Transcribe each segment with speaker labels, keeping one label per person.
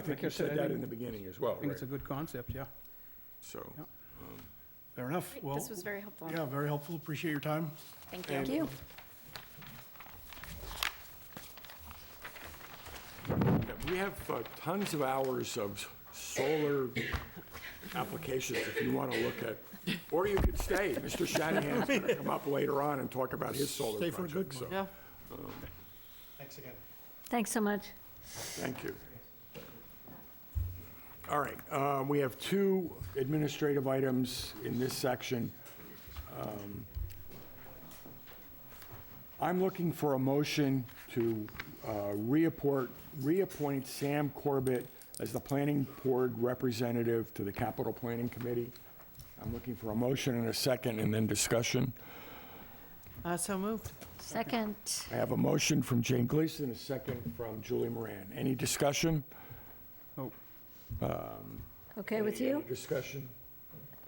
Speaker 1: I think you
Speaker 2: Like I said,
Speaker 1: said that
Speaker 2: I think-
Speaker 1: in the beginning as well,
Speaker 2: I think
Speaker 1: right?
Speaker 2: it's a good concept, yeah.
Speaker 3: So,
Speaker 2: Yeah.
Speaker 3: um,
Speaker 4: Fair enough.
Speaker 5: Great,
Speaker 4: Well,
Speaker 5: This was very helpful.
Speaker 4: yeah, very helpful. Appreciate your time.
Speaker 5: Thank you.
Speaker 4: Thank
Speaker 5: you.
Speaker 3: yeah, we have uh, tons of hours of solar applications if you want to look at, or you could stay. Mr. Shanahan's going to come up later on and talk about his solar
Speaker 4: Stay for a good
Speaker 3: project, so,
Speaker 6: Yeah.
Speaker 4: Thanks again.
Speaker 7: Thanks so much.
Speaker 3: thank you. All right, uh, we have two administrative items in this section. Um, I'm looking for a motion to uh, reappoint, reappoint Sam Corbett as the planning board representative to the capital planning committee. I'm looking for a motion and a second, and then discussion.
Speaker 6: Uh, So moved.
Speaker 7: Second,
Speaker 3: I have a motion from Jane Gleason, a second from Julie Moran. Any discussion?
Speaker 7: okay with
Speaker 3: Any-
Speaker 7: you?
Speaker 3: any Discussion?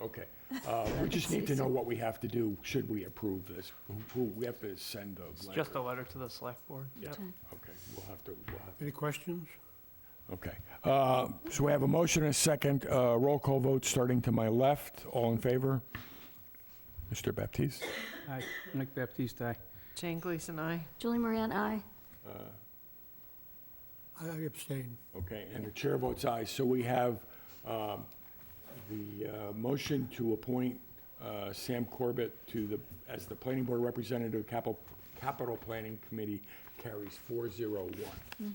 Speaker 3: Okay. Uh, We just need to know what we have to do, should we approve this? Who- Who, we have to send a letter?
Speaker 6: Just a letter to the select board. Yep.
Speaker 3: Okay, we'll have to, we'll have,
Speaker 4: Any questions?
Speaker 3: okay. Uh, So we have a motion and a second, uh, roll call vote starting to my left. All in favor? Mr. Baptiste?
Speaker 2: Aye, Nick Baptiste, aye.
Speaker 6: Jane Gleason, aye.
Speaker 7: Julie Moran, aye.
Speaker 4: I abstain.
Speaker 3: Okay, and the chair votes aye. So we have um, the uh, motion to appoint uh, Sam Corbett to the, as the planning board representative, capital, capital planning committee carries 401.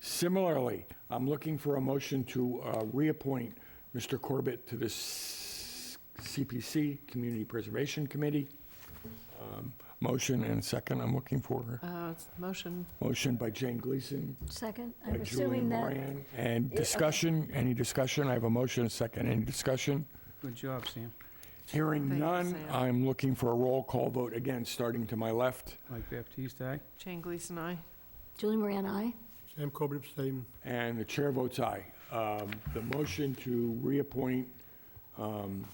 Speaker 3: Similarly, I'm looking for a motion to uh, reappoint Mr. Corbett to the S- CPC, Community Preservation Committee. Um, Motion and second I'm looking for.
Speaker 6: Uh, it's Motion,
Speaker 3: Motion by Jane Gleason,
Speaker 7: Second,
Speaker 3: by Julian
Speaker 7: I'm assuming that,
Speaker 3: Moran. And discussion, any discussion? I have a motion, a second, any discussion?
Speaker 2: Good job, Sam.
Speaker 3: Hearing
Speaker 6: Thank you,
Speaker 3: none,
Speaker 6: Sam.
Speaker 3: I'm looking for a roll call vote again, starting to my left.
Speaker 2: Mike Baptiste, aye.
Speaker 6: Jane Gleason, aye.
Speaker 7: Julie Moran, aye.
Speaker 4: Sam Corbett abstain.
Speaker 3: And the chair votes aye. Um, The motion to reappoint, um,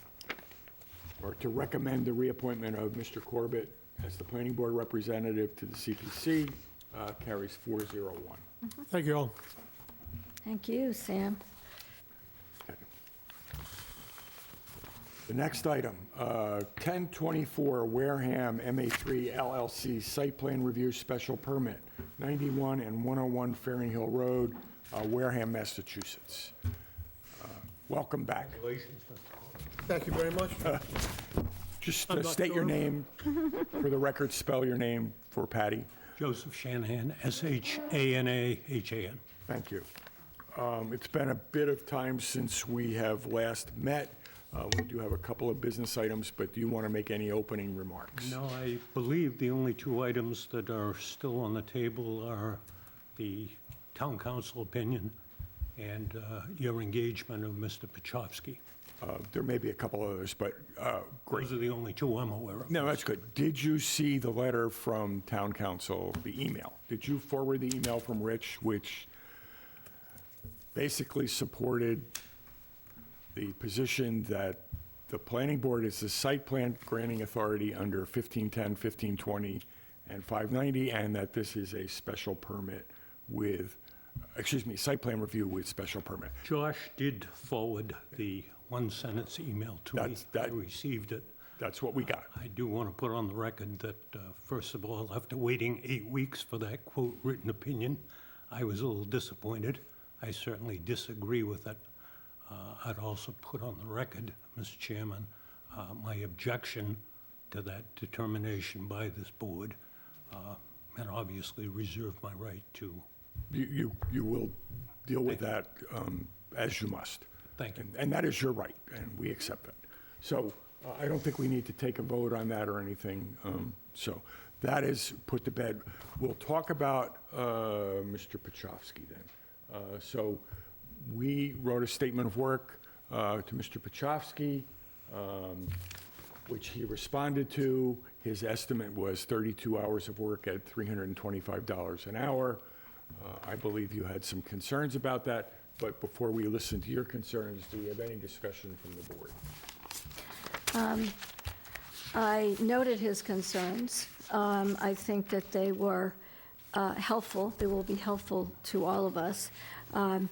Speaker 3: or to recommend the reappointment of Mr. Corbett as the planning board representative to the CPC uh, carries 401.
Speaker 4: Thank you all.
Speaker 7: Thank you, Sam.
Speaker 3: The next item, uh, 1024 Wareham MA3 LLC Site Plan Review Special Permit, 91 and 101 Fairing Hill Road, uh, Wareham, Massachusetts. Uh, Welcome back.
Speaker 4: Thank you very much.
Speaker 3: Just
Speaker 4: I'm
Speaker 3: uh,
Speaker 4: not
Speaker 3: state your
Speaker 4: sure.
Speaker 3: name, for the record, spell your name for Patty.
Speaker 8: Joseph Shanahan, S-H-A-N-A-H-A-N.
Speaker 3: Thank you. Um, It's been a bit of time since we have last met. Uh, We do have a couple of business items, but do you want to make any opening remarks?
Speaker 8: No, I believe the only two items that are still on the table are the town council opinion and uh, your engagement of Mr. Pachowski.
Speaker 3: Uh, There may be a couple others, but uh, great.
Speaker 8: Those are the only two I'm aware of.
Speaker 3: No, that's good. Did you see the letter from town council, the email? Did you forward the email from Rich, which basically supported the position that the planning board is the site plan granting authority under 1510, 1520, and 590, and that this is a special permit with, excuse me, site plan review with special permit?
Speaker 8: Josh did forward the one-sentence email to me.
Speaker 3: That's- that-
Speaker 8: I received it.
Speaker 3: That's what we got.
Speaker 8: I do want to put on the record that, uh, first of all, after waiting eight weeks for that quote written opinion, I was a little disappointed. I certainly disagree with it. Uh, I'd also put on the record, Mr. Chairman, uh, my objection to that determination by this board, uh, and obviously reserve my right to,
Speaker 3: You, you, you will deal with that um, as you must.
Speaker 8: Thank you.
Speaker 3: And- And that is your right, and we accept that. So uh, I don't think we need to take a vote on that or anything. um, So that is put to bed. We'll talk about uh, Mr. Pachowski then. Uh, So we wrote a statement of work uh, to Mr. Pachowski, um, which he responded to. His estimate was 32 hours of work at $325 an hour. Uh, I believe you had some concerns about that, but before we listen to your concerns, do we have any discussion from the board?
Speaker 7: I noted his concerns. Um, I think that they were uh, helpful, they will be helpful to all of us. Um,